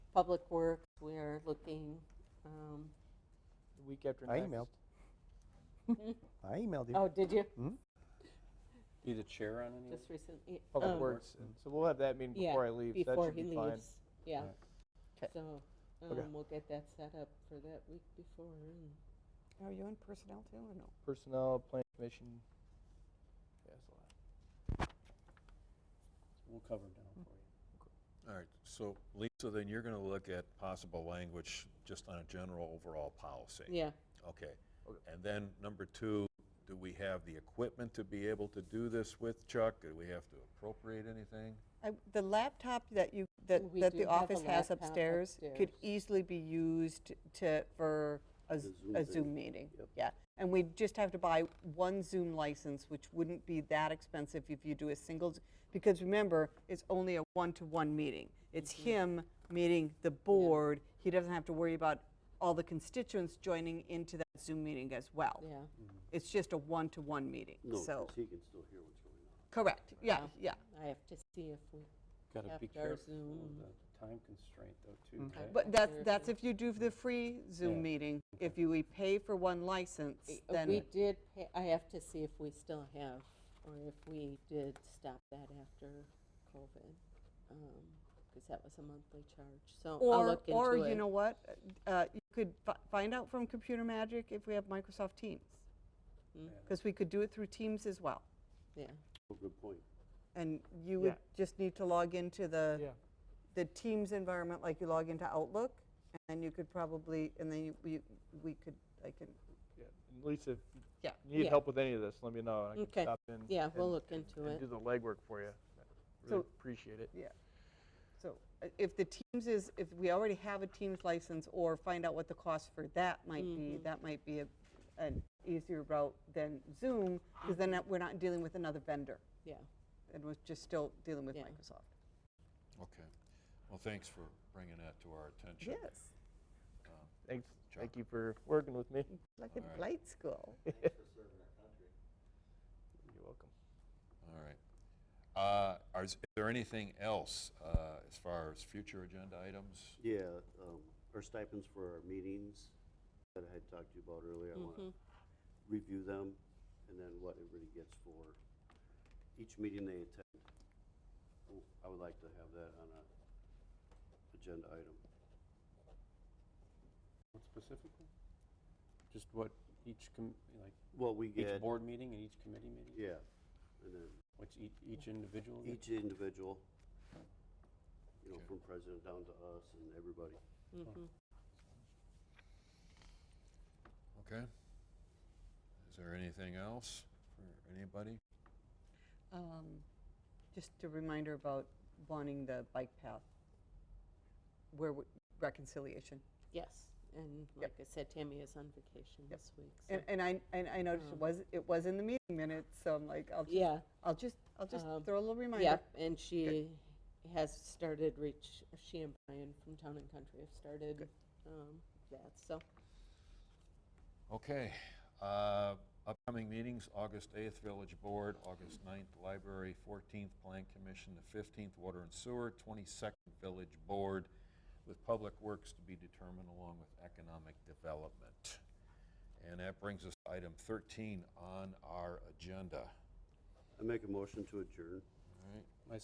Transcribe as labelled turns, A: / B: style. A: Public Works, we are looking, um,
B: The week after
C: I
B: next.
C: emailed. I emailed you.
A: oh, did you?
D: Be the chair on any?
A: Just recently?
B: Public
A: um,
B: Works. and- So we'll have that meeting
A: yeah,
B: before I leave. so
A: Before
B: that
A: he
B: should be fine.
A: leaves, yeah. So,
C: Okay.
A: um, we'll get that set up for that week before. and-
E: Are you on personnel too or no?
B: Personnel, Plan Commission. Yeah, that's a lot.
D: We'll cover it down for you.
F: All right, so Lisa, then you're going to look at possible language just on a general overall policy.
A: Yeah,
F: Okay.
B: Okay.
F: And then number two, do we have the equipment to be able to do this with Chuck? Do we have to appropriate anything?
E: I- The laptop that you, that,
A: We
E: that
A: do
E: the
A: have a
E: office has
A: laptop
E: upstairs could
A: upstairs.
E: easily be used to, for a Z- a Zoom meeting. Yeah, and we just have to buy one Zoom license, which wouldn't be that expensive if you do a single, Z- because remember, it's only a one-to-one meeting. It's
A: Mm-hmm.
E: him meeting the board, he doesn't have to worry about all the constituents joining into that Zoom meeting as well.
A: yeah.
E: It's just a one-to-one meeting, so,
G: he can still hear what's going on.
E: correct, yeah, yeah.
A: I have to see if we,
D: Gotta be
A: After our
D: careful
A: Zoom.
D: of the time constraint though, too,
B: Mm.
D: right?
E: But that's,
A: Or if
E: that's
A: you-
E: if you do the free
D: Yeah.
E: Zoom meeting. If you we pay for one license,
A: eh, we
E: then,
A: did, pay- I have to see if we still have, or if we did stop that after COVID. Because that was a monthly charge, so I'll
E: or,
A: look into it.
E: or you know what? Uh, You could fi- find out from Computer Magic if we have Microsoft Teams.
A: Mm.
E: Because we could do it through Teams as well.
A: Yeah,
G: Oh, Good point.
E: And you would
B: Yeah.
E: just need to log into the,
B: Yeah.
E: the Teams environment like you log into Outlook. And then you could probably, and then you- we, we could, I can,
B: Yeah. And Lisa, if you
E: Yeah.
B: need
A: Yeah.
B: help with any of this, let me know. and I
A: Okay.
B: can stop in.
A: yeah, we'll
B: and-
A: look
B: and-
A: into
B: And
A: it.
B: do the legwork for you. I Really
E: So-
B: appreciate it.
E: so uh, if the Teams is, if we already have a Teams license or find out what the cost for that might be,
A: Mm-hmm.
E: that might be a, an easier route than Zoom, because then that- we're not dealing with another vendor,
A: Yeah,
E: and we're just still dealing with
A: Yeah.
E: Microsoft.
F: Okay. Well, thanks for bringing that to our attention.
E: Yes,
B: Thanks.
F: Sure.
B: Thank you for working with me.
E: like
F: All right.
E: a blight school.
B: You're welcome.
F: All right. Uh, are- Is there anything else uh, as far as future agenda items?
G: Yeah, um, our stipends for our meetings that I had talked to you about earlier, I want to review them and then what everybody gets for each meeting they attend. Oh, I would like to have that on a agenda item.
D: What specifically? Just what each, com- like,
G: Well, we
D: each
G: get,
D: board meeting and each committee meeting?
G: yeah, and then
D: What's each, each individual?
G: each individual, you know,
F: Okay.
G: from president down to us and everybody.
A: mhm.
F: Okay. Is there anything else for anybody?
E: Um, Just a reminder about wanting the bike path, where w- reconciliation.
A: yes, and like I said, Tammy is on vacation
E: Yep.
A: this week, so,
E: And, and I, and I noticed it
A: Um,
E: was, it was in the meeting minutes, so I'm like, I'll just,
A: yeah.
E: I'll just, I'll just
A: Um,
E: throw a little reminder.
A: Yep, and she has started reach, she and Brian from Town and Country have started um, that, so.
F: Okay. uh, Upcoming meetings, August 8th, Village Board, August 9th, Library, 14th, Plan Commission, the 15th, Water and Sewer, 22nd, Village Board, with Public Works to be determined along with Economic Development. And that brings us to item 13 on our agenda.
G: I make a motion to adjourn.
F: All right.
D: My